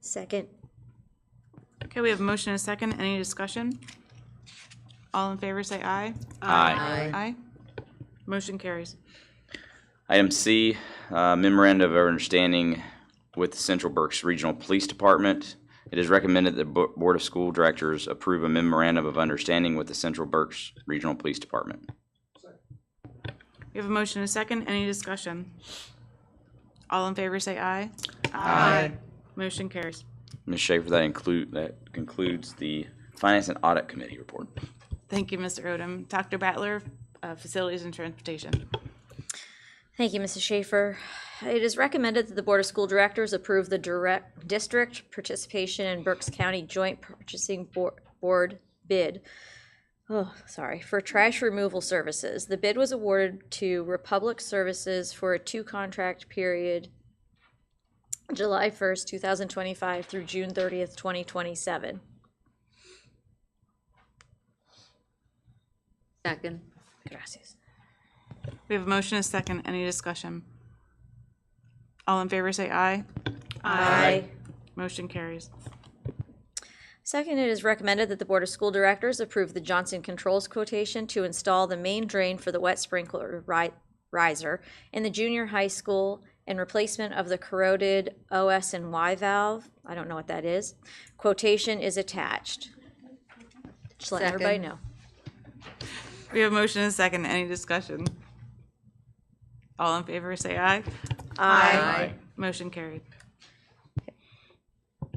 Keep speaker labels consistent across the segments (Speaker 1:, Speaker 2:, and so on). Speaker 1: Second.
Speaker 2: Okay, we have a motion and a second. Any discussion? All in favor, say aye.
Speaker 3: Aye.
Speaker 2: Aye. Motion carries.
Speaker 3: Item C, uh, memorandum of understanding with the Central Berks Regional Police Department. It is recommended that the Bo- Board of School Directors approve a memorandum of understanding with the Central Berks Regional Police Department.
Speaker 2: We have a motion and a second. Any discussion? All in favor, say aye. Aye. Motion carries.
Speaker 3: Ms. Schaefer, that include, that concludes the Finance and Audit Committee report.
Speaker 2: Thank you, Mr. Odom. Dr. Battler, uh, Facilities and Transportation.
Speaker 1: Thank you, Mrs. Schaefer. It is recommended that the Board of School Directors approve the direct district participation in Berks County Joint Purchasing Bo- Board bid. Oh, sorry, for trash removal services. The bid was awarded to Republic Services for a two-contract period July first, two thousand twenty-five through June thirtieth, twenty twenty-seven.
Speaker 4: Second.
Speaker 1: Gracias.
Speaker 2: We have a motion and a second. Any discussion? All in favor, say aye.
Speaker 1: Aye.
Speaker 2: Motion carries.
Speaker 1: Second, it is recommended that the Board of School Directors approve the Johnson Controls quotation to install the main drain for the wet sprinkler ri- riser in the junior high school in replacement of the corroded OS and Y valve. I don't know what that is. Quotation is attached. Just let everybody
Speaker 4: Second.
Speaker 1: know.
Speaker 2: We have a motion and a second. Any discussion? All in favor, say aye.
Speaker 4: Aye.
Speaker 2: Motion carried.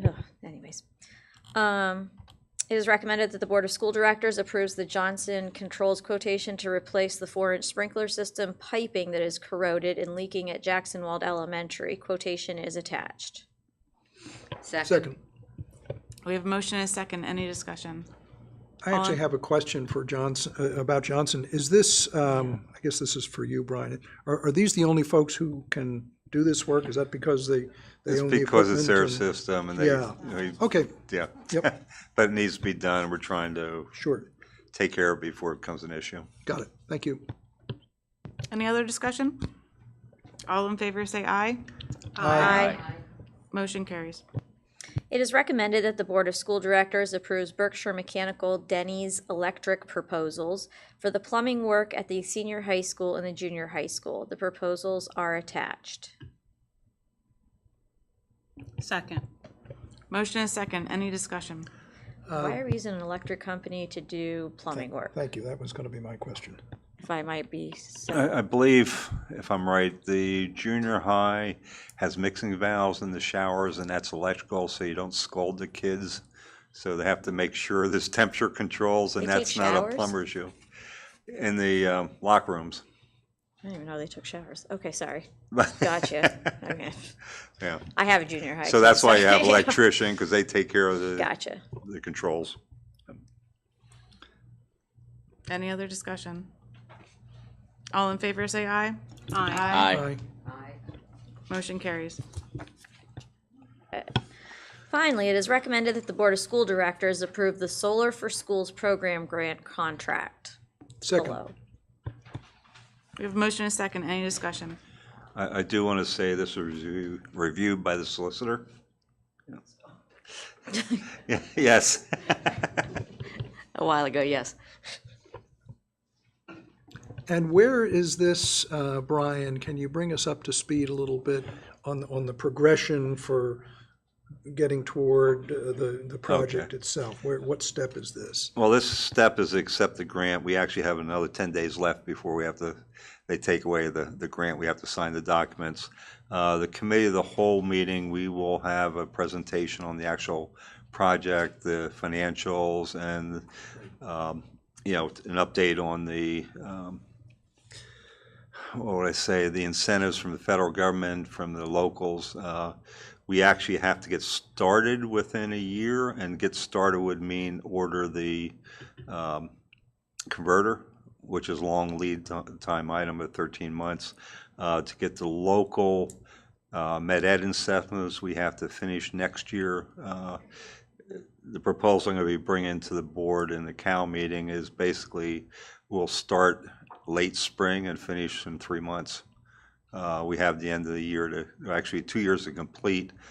Speaker 1: Ugh, anyways. Um, it is recommended that the Board of School Directors approves the Johnson Controls quotation to replace the four-inch sprinkler system piping that is corroded and leaking at Jackson Wald Elementary. Quotation is attached.
Speaker 4: Second.
Speaker 5: Second.
Speaker 2: We have a motion and a second. Any discussion?
Speaker 5: I actually have a question for Johnson, uh, about Johnson. Is this, um, I guess this is for you, Brian. Are, are these the only folks who can do this work? Is that because they, they
Speaker 6: It's
Speaker 5: own the
Speaker 6: because it's their
Speaker 5: equipment? and-
Speaker 6: system and they,
Speaker 5: Yeah.
Speaker 6: they-
Speaker 5: Okay,
Speaker 6: yeah.
Speaker 5: Yep.
Speaker 6: But it needs to be done. We're trying to
Speaker 5: sure,
Speaker 6: take care of it before it becomes an issue.
Speaker 5: got it, thank you.
Speaker 2: Any other discussion? All in favor, say aye.
Speaker 1: Aye.
Speaker 2: Motion carries.
Speaker 1: It is recommended that the Board of School Directors approves Berkshire Mechanical Denny's Electric proposals for the plumbing work at the senior high school and the junior high school. The proposals are attached.
Speaker 2: Second. Motion and a second. Any discussion?
Speaker 1: Why are we using an electric company to do plumbing work,
Speaker 5: Uh, Thank you, that was gonna be my question.
Speaker 1: if I might be so
Speaker 6: I, I believe, if I'm right, the junior high has mixing valves in the showers and that's electrical, so you don't scald the kids. So they have to make sure there's temperature controls and
Speaker 1: They take
Speaker 6: that's not
Speaker 1: showers?
Speaker 6: a plumber issue. In the um, locker rooms.
Speaker 1: I didn't even know they took showers. Okay, sorry.
Speaker 6: But-
Speaker 1: Gotcha. okay.
Speaker 6: Yeah.
Speaker 1: I have a junior high.
Speaker 6: So
Speaker 1: too,
Speaker 6: that's why you
Speaker 1: sorry.
Speaker 6: have electrician, because they take care of the,
Speaker 1: gotcha.
Speaker 6: the controls.
Speaker 2: Any other discussion? All in favor, say aye.
Speaker 5: Aye.
Speaker 2: Motion carries.
Speaker 1: Finally, it is recommended that the Board of School Directors approve the Solar for Schools program grant contract
Speaker 5: Second,
Speaker 1: below.
Speaker 2: We have a motion and a second. Any discussion?
Speaker 6: I, I do want to say this was review- reviewed by the solicitor. Yeah, Yes,
Speaker 4: A while ago, yes.
Speaker 5: and where is this, uh, Brian, can you bring us up to speed a little bit on, on the progression for getting toward uh, the, the project itself? Where, what step is this?
Speaker 6: well, this step is accept the grant. We actually have another 10 days left before we have to, they take away the, the grant. We have to sign the documents. Uh, The committee of the whole meeting, we will have a presentation on the actual project, the financials, and, um, you know, an update on the um, what would I say, the incentives from the federal government, from the locals. uh, We actually have to get started within a year, and get started would mean order the um, converter, which is long lead ti- time item of 13 months. Uh, To get the local uh, med ed incentives, we have to finish next year. Uh, The proposal I'm going to be bringing to the board in the Cal meeting is basically, we'll start late spring and finish in three months. Uh, We have the end of the year to, actually, two years to complete.